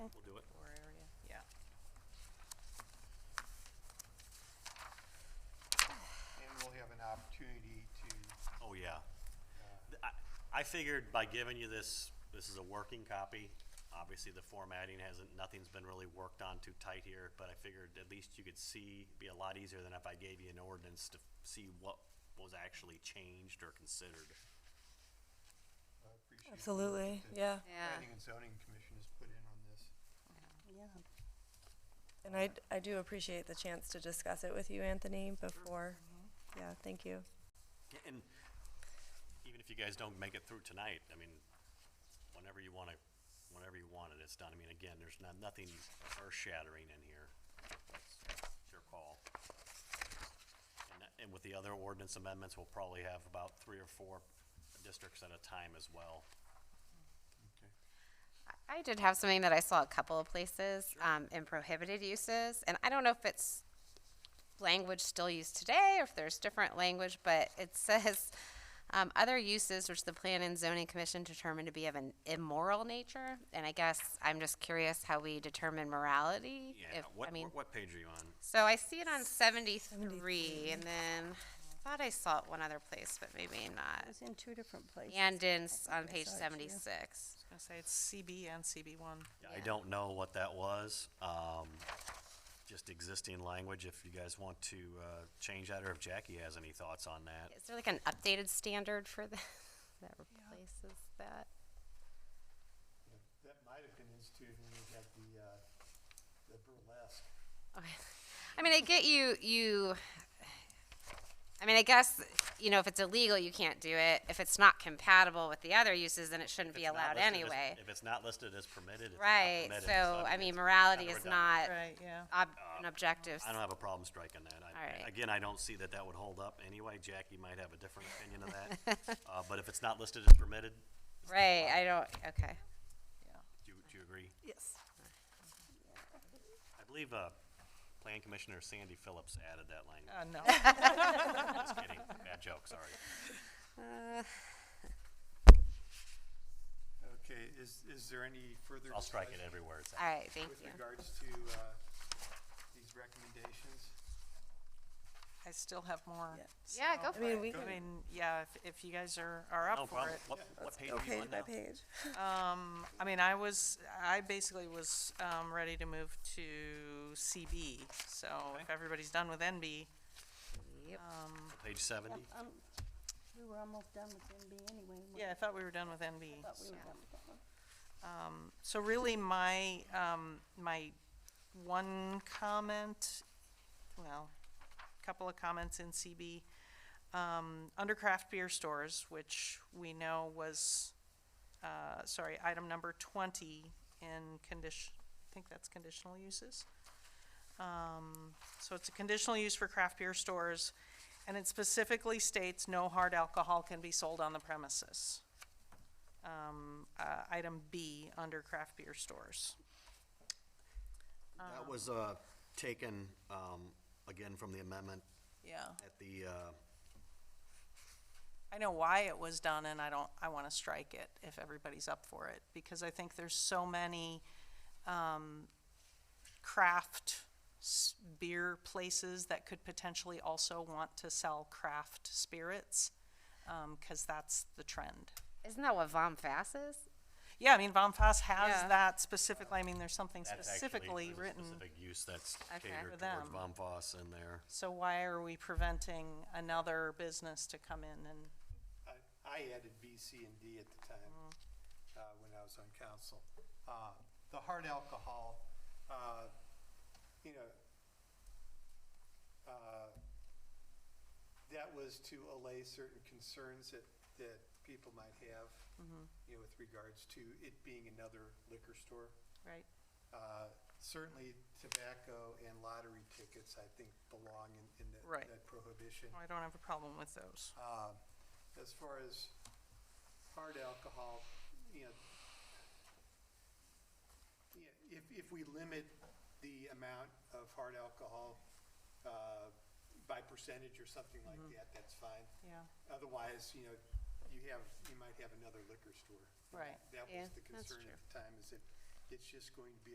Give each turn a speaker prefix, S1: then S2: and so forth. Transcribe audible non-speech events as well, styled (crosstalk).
S1: Oh,
S2: uh,
S1: I figured by giving you this, this is a working copy. Obviously, the formatting hasn't, nothing's been really worked on too tight here, but I figured at least you could see, be a lot easier than if I gave you an ordinance to see what was actually changed or considered.
S2: I appreciate the work
S3: Absolutely,
S2: that
S3: yeah.
S2: the
S4: Yeah.
S2: Planning and zoning commission has put in on this.
S3: Yeah. And I, I do appreciate the chance to discuss it with you, Anthony, before. Yeah, thank you.
S1: And even if you guys don't make it through tonight, I mean, whenever you want to, whenever you want it, it's done. I mean, again, there's not, nothing earth-shattering in here. It's your call. And that- And with the other ordinance amendments, we'll probably have about three or four districts at a time as well.
S2: Okay.
S4: I did have something that I saw a couple of places um, in prohibited uses, and I don't know if it's language still used today or if there's different language, but it (laughs) says um, other uses which the Plan and Zoning Commission determined to be of an immoral nature. And I guess I'm just curious how we determine morality.
S1: Yeah,
S4: if- I
S1: what,
S4: mean,
S1: what page are you on?
S4: so I see it on 73, and then I thought I saw it one other place, but maybe not.
S5: It was in two different places.
S4: And in,
S5: think
S4: on
S5: I
S4: page
S5: saw it too.
S4: 76.
S6: I was gonna say it's CB and CB1.
S1: I don't know what that was. Um, just existing language, if you guys want to, uh, change that, or if Jackie has any thoughts on that.
S4: Is there like an updated standard for that (laughs) that replaces that?
S2: Yeah, That might have been instituted when we had the, uh, the burlesque.
S4: Okay. I mean, I get you. You. I mean, I guess you know if it's illegal, you can't do it. If it's not compatible with the other uses, then it shouldn't
S1: If
S4: be
S1: it's not
S4: allowed
S1: listed as-
S4: anyway.
S1: If it's not listed as permitted, it's not
S4: Right.
S1: permitted,
S4: So I
S1: it's
S4: mean,
S1: kind
S4: morality
S1: of
S4: is
S1: redundant.
S4: not
S5: Uh,
S6: Right, yeah.
S4: ob- an objective.
S1: I don't have a problem striking that. I-
S4: All right.
S1: Again, I don't see that that would hold up anyway. Jackie might have a different opinion of
S4: (laughs)
S1: that. Uh, but if it's not listed as permitted,
S4: Right. I don't. Okay.
S1: do, you- do you agree?
S3: Yes.
S1: I believe, uh, Plan Commissioner Sandy Phillips added that
S4: (laughs)
S1: language.
S5: (laughs)
S6: Uh, no.
S1: Just kidding. Bad joke, sorry.
S4: Uh,
S2: Okay, is, is there any further?
S1: I'll strike it
S2: discussion
S1: everywhere it's
S4: All
S1: at.
S4: right. Thank
S2: With
S4: you.
S2: regards to, uh, these recommendations?
S6: I still have more.
S3: Yeah.
S4: Yeah,
S6: so-
S4: go
S3: I
S4: for
S3: mean,
S4: it.
S3: we
S6: I
S3: can,
S6: mean, yeah, if, if you guys are, are
S1: No
S6: up for
S1: problem.
S6: it.
S1: What, what page
S3: go
S1: are you
S3: page
S1: on
S3: by
S1: now?
S3: page.
S6: Um, I mean, I was, I basically was, um, ready to move to CB. So if everybody's done with NB,
S4: Yep.
S1: Page seventy?
S5: Um, We were almost done with MB anyway. weren't we?
S6: yeah, I thought we were done with NB.
S5: Thought we were done with that one.
S6: So really, my, um, my one comment, well, couple of comments in CB, um, under craft beer stores, which we know was, uh, sorry, item number twenty in condition, I think that's conditional uses. Um, so it's a conditional use for craft beer stores, and it specifically states no hard alcohol can be sold on the premises um, uh, item B under craft beer stores.
S1: That was, uh, taken, um, again from the amendment
S6: Yeah.
S1: at the, uh,
S6: I know why it was done, and I don't, I want to strike it if everybody's up for it, because I think there's so many um, craft s- beer places that could potentially also want to sell craft spirits, because that's the trend.
S4: Isn't that what Vom Fass is?
S6: Yeah, I mean, Bonfas
S4: Yeah.
S6: has that specifically, I mean, there's something
S1: That's actually-
S6: specifically
S1: there's a
S6: written.
S1: Specific use that's
S4: Okay.
S1: catered towards
S6: For them.
S1: Bomfoss in there.
S6: So why are we preventing another business to come in and
S2: I, I added B, C, and D at the time, uh, when I was on council. Uh, the hard alcohol, uh, you know, uh, that was to allay certain concerns that, that people might have, you know, with regards to it being another liquor store.
S6: Right.
S2: Uh, Certainly tobacco and lottery tickets, I think, belong in, in that-
S6: Right. Oh,
S2: that prohibition.
S6: I don't have a problem with those.
S2: Uh, As far as hard alcohol, you know, yeah, if, if we limit the amount of hard alcohol uh, by percentage or something like
S4: Mm-hmm.
S2: that, that's fine.
S6: Yeah.
S2: Otherwise, you know, you have, you might have another liquor store.
S6: Right.
S2: That
S4: Yeah,
S2: was the
S4: that's
S2: concern
S4: true.
S2: at the time, is that it's just going to be